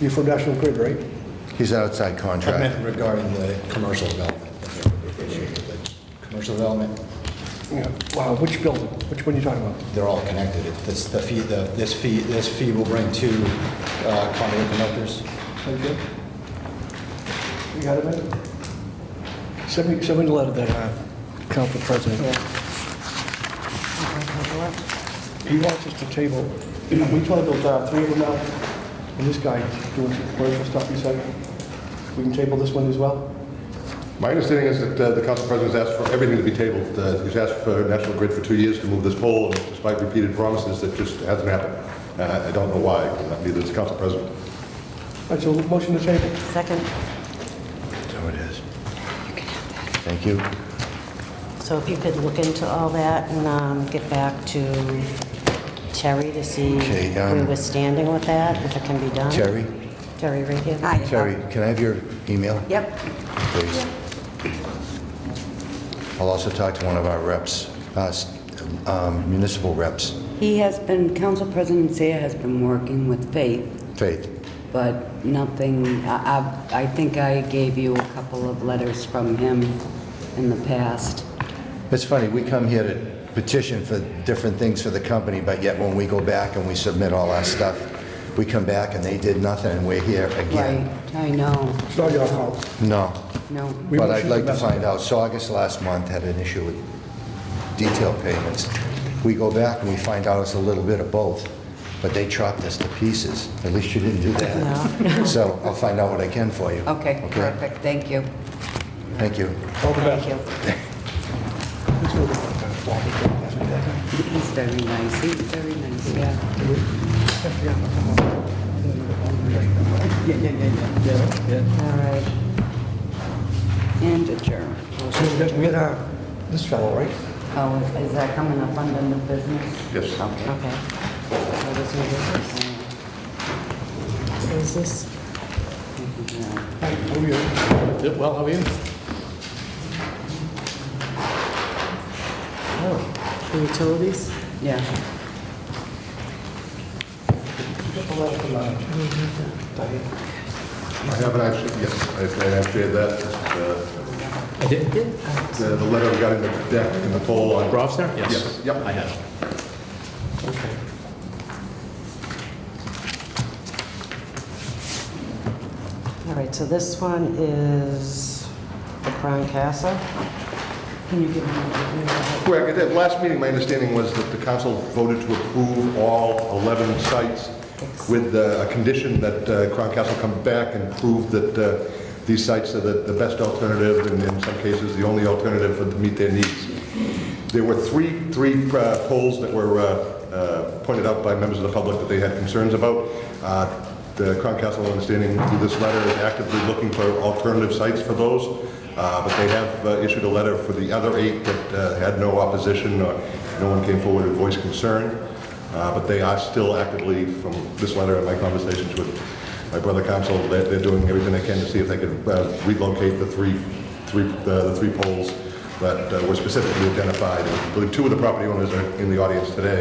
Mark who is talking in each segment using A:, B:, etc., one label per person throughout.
A: You're from National Grid, right?
B: He's outside
C: I
B: contract.
C: meant regarding the commercial development. that there would be an issue with the Commercial development,
A: Yeah. Wow, which building? Which one are you talking about?
C: they're all connected. It- This, the fee, the, this fee, this fee will bring two uh, conduit connectors.
A: Okay. You got it, man? Somebody, somebody let that, uh, council president. He wants us to table, we tabled uh, three of them now, and this guy doing some commercial stuff, he said, we can table this one as well?
D: My understanding is that uh, the council president's asked for everything to be tabled. Uh, He's asked for National Grid for two years to move this pole, and despite repeated promises, that just hasn't happened. Uh, I don't know why, neither does the council president.
A: All right, so motion to table.
E: Second,
B: So it is. Thank you.
E: so if you could look into all that and um, get back to Terry to see
B: Okay,
E: where
B: um,
E: we're standing with that, if it can be done.
B: Terry?
E: Terry right here.
F: Hi.
B: Terry, can I have your email?
F: Yep.
B: Please. I'll also talk to one of our reps, uh, s- um, municipal reps,
F: He has been, Council President Seah has been working with Faith,
B: Faith.
F: but nothing, I, I- I think I gave you a couple of letters from him in the past.
B: It's funny, we come here to petition for different things for the company, but yet when we go back and we submit all our stuff, we come back and they did nothing, and we're here
F: Right,
B: again.
F: I know,
A: It's not your fault.
B: No.
F: no.
A: We
B: But
A: will
B: I'd
A: shoot
B: like
A: the
B: to
A: messenger.
B: find out, Saugus last month had an issue with detail payments. We go back and we find out it's a little bit of both, but they chopped us to pieces. At least you didn't do that. So I'll find out what I can for you.
F: Okay,
B: Okay,
F: perfect, thank you.
B: thank you.
A: All the best.
E: Thank you.
F: He's very nice, he's very nice, yeah. All right. And adjourn.
A: So we had, we had, uh, this fellow, right?
F: Oh, is that coming up under new business?
D: Yes.
F: Okay.
E: Okay.
F: What is new business?
E: Is this?
A: Hi, how are you?
G: Well, how are you?
E: Oh, the utilities?
F: Yeah.
A: Just a letter from, uh, Diane.
D: I haven't actually, yes, I I have shared that. uh,
G: I did.
D: The the letter regarding the deck and the pole on...
G: Rob's there?
D: Yes, yep.
G: I have.
E: All right, so this one is the Crown Castle. Can you give me a...
D: Correct. At that last meeting, my understanding was that the council voted to approve all 11 sites with uh, a condition that uh, Crown Castle come back and prove that uh, these sites are the the best alternative and in some cases, the only alternative for- to meet their needs. There were three, three uh, polls that were uh, uh, pointed out by members of the public that they had concerns about. Uh, The Crown Castle, understanding through this letter, is actively looking for alternative sites for those, Uh, but they have uh, issued a letter for the other eight that uh, had no opposition or no one came forward and voiced concern. Uh, But they are still actively, from this letter and my conversations with my brother council, they're they're doing everything they can to see if they could uh, relocate the three, three, uh, the the three poles that uh, were specifically identified. And I believe two of the property owners are in the audience today,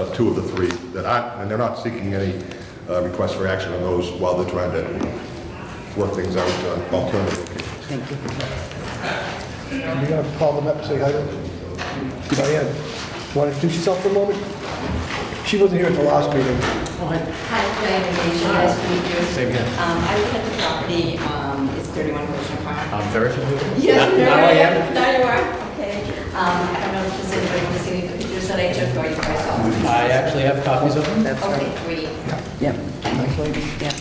D: of two of the three that aren't, and they're not seeking any uh, request for action on those while they're trying to work things out uh, on alternative locations.
A: You gotta call them up and say hi. Diane, want to introduce yourself for a moment? She wasn't here at the last meeting.
H: Hi, Diane Nation, nice to meet you. Same here. Um, I live at the property, um, it's 31 Ocean Park.
G: I'm very familiar.
H: Yes, there
G: Now I
H: I
G: am.
H: am. Now you are, okay. Um, I don't know if there's anybody who's seen the pictures that I took or you guys saw. them.
G: I actually have copies of them.
F: That's
H: Okay,
F: right.
H: great.
F: Yep,
A: Nice lady.
F: yep.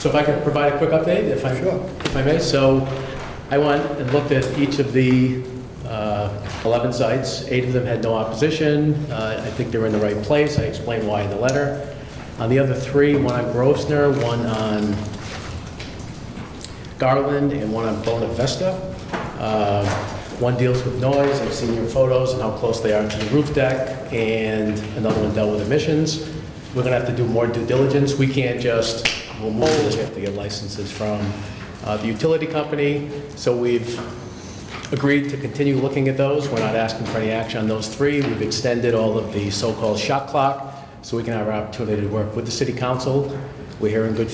G: So if I could provide a quick update, if I,
A: Sure.
G: if I may. So I went and looked at each of the uh, 11 sites. Eight of them had no opposition. Uh, I think they were in the right place. I explained why in the letter. On the other three, one on Grosvenor, one on Garland and one on Bona Vesta. Um, One deals with noise, I've seen your photos and how close they are to the roof deck, and another one dealt with emissions. We're gonna have to do more due diligence, we can't just, we'll move this, we have to get licenses from uh, the utility company. So we've agreed to continue looking at those. We're not asking for any action on those three. We've extended all of the so-called shot clock, so we can have our opportunity to work with the city council. We're here in good